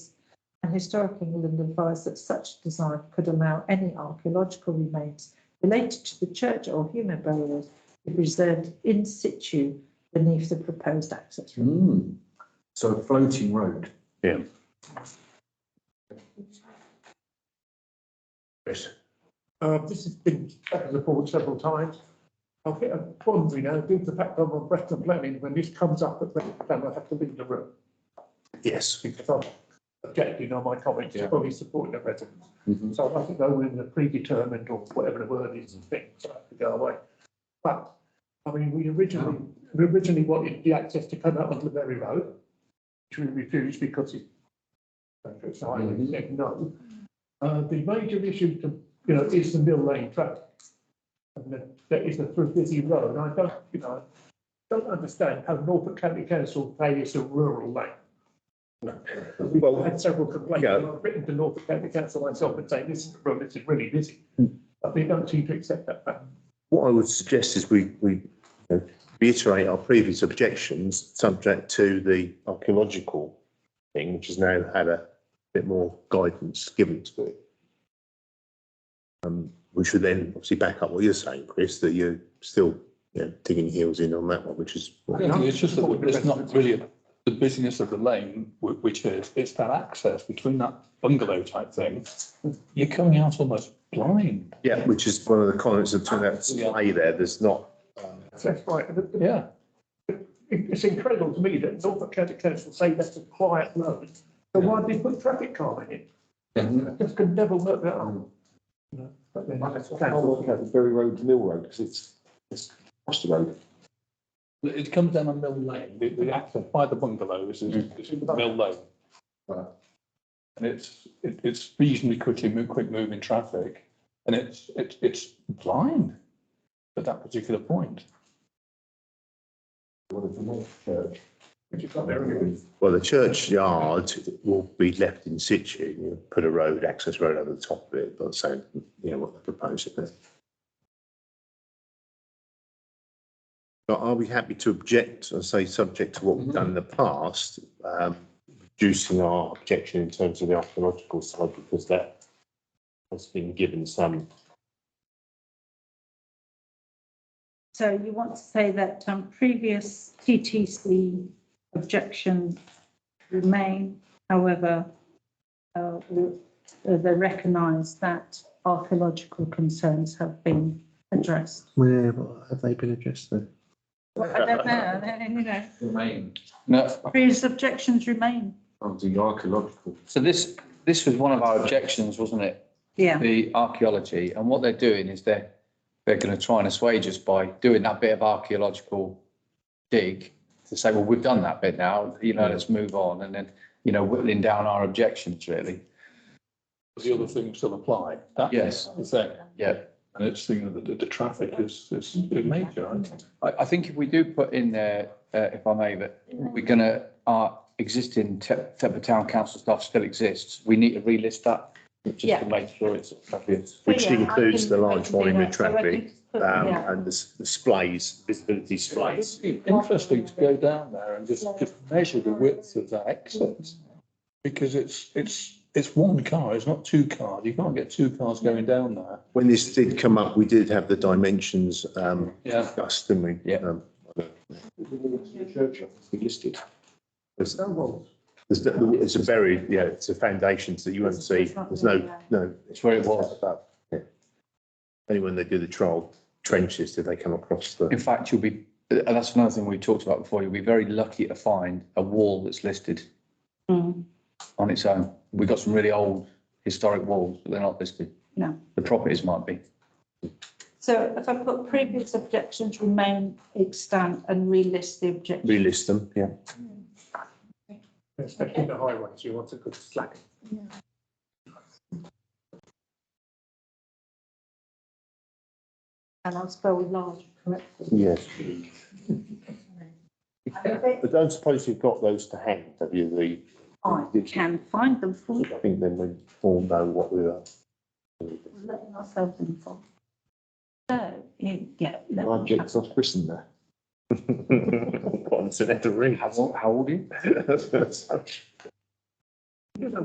and Historic England advised that such design could allow any archaeological remains related to the church or human burials to be preserved in situ beneath the proposed access road. Hmm. So a floating road. Chris. Uh, this has been back to the board several times. I think I'm wondering now, due to the fact I'm on Breton planning, when this comes up at Breton planning, I have to leave the room Yes. because I'm objecting on my comments, Yeah. probably supporting the residents. Mhm. So I mustn't go in the predetermined or whatever the word is and things, so I have to go away. But, I mean, we originally, we originally wanted the access to come out onto the Berry Road, which we refused because it, so I Mhm. said no. Uh, the major issue to, you know, is the Mill Lane traffic. And that, that is a through busy road, I don't, you know, I don't understand how Norfolk County Council pays a rural lane. We've Well, had several complaints, Yeah. and I've written to Norfolk County Council myself and saying, this is, well, this is really busy. But they don't seem to accept that fact. what I would suggest is we, we you know, reiterate our previous objections, subject to the archaeological thing, which has now had a bit more guidance given to it. Um, we should then obviously back up what you're saying, Chris, that you're still, you know, digging your heels in on that one, which is. I don't think It's just that it's not really the busyness of the lane, wh- which is, it's that access between that bungalow type thing. You're coming out almost blind. Yeah, which is one of the comments that turned out to play there, there's not. That's right. And it- Yeah, it- It's incredible to me that Norfolk County Council say that's a quiet road. So why did they put traffic calming in? I just could never work that out. But then- Ferry Road to Mill Road, because it's, it's across the road. It- it comes down a mill lane, the, the access by the bungalows is, is mill lane. Right. And it's, it, it's reasonably quickly, mo- quick moving traffic, and it's, it's, it's blind at that particular point. Which is not very good. Well, the churchyard will be left in situ, you put a road, access road over the top of it, but so, you know, what they're proposing there. But are we happy to object, I say, subject to what we've done in the past, um, reducing our objection in terms of the archaeological side, because that has been given some, So you want to say that um, previous TTC objections remain, however, uh, we- uh, they recognise that archaeological concerns have been addressed. Yeah, but have they been addressed then? Well, I don't know, I don't- you know, Remain. No, previous objections remain, Of the archaeological. so this, this was one of our objections, wasn't it? yeah. The archaeology, and what they're doing is they're, they're going to try and assuage us by doing that bit of archaeological dig to say, well, we've done that bit now, you know, let's move on, and then, you know, whittling down our objections, really. The other things still apply. That- Yes. that's The thing, Yeah. and it's thinking that the, the traffic is, is major, I think. I, I think if we do put in there, uh, if I may, that we're gonna, our existing Te- Thetford Town Council stuff still exists, we need to relist that. Just Yeah. to make sure it's obvious. which Yeah, I includes can- the I large can do volume of that. So I traffic, can put- um, Oh, yeah. and the s- displays, visibility displays. It'd be Interesting to go down there and just, just measure the width of that exit. Because it's, it's, it's one car, it's not two cars. You can't get two cars going down there. When this did come up, we did have the dimensions um, Yeah. discussed, didn't we? Yeah. Um, We listed. There's there's no- it's a buried, yeah, it's a foundation, so you won't see, there's no, no. It's where it was. above, yeah. Only when they do the trial trenches did they come across In the, fact, you'll be, and that's another thing we talked about before, you'll be very lucky to find a wall that's listed Mm. on its own. We've got some really old historic walls, but they're not listed. No. The properties might be. So if I put previous objections remain extant and relist the objections. relist them, yeah. Especially the highways, you want a good slack. And I'll spell large correctly. Yes. I don't suppose you've got those to hand, have you, the, I can find them for you, I think then we all know what we are. letting ourselves in for. So, you- yeah. let me Objects off Britain there. What's in every ring? How, old- how old are you?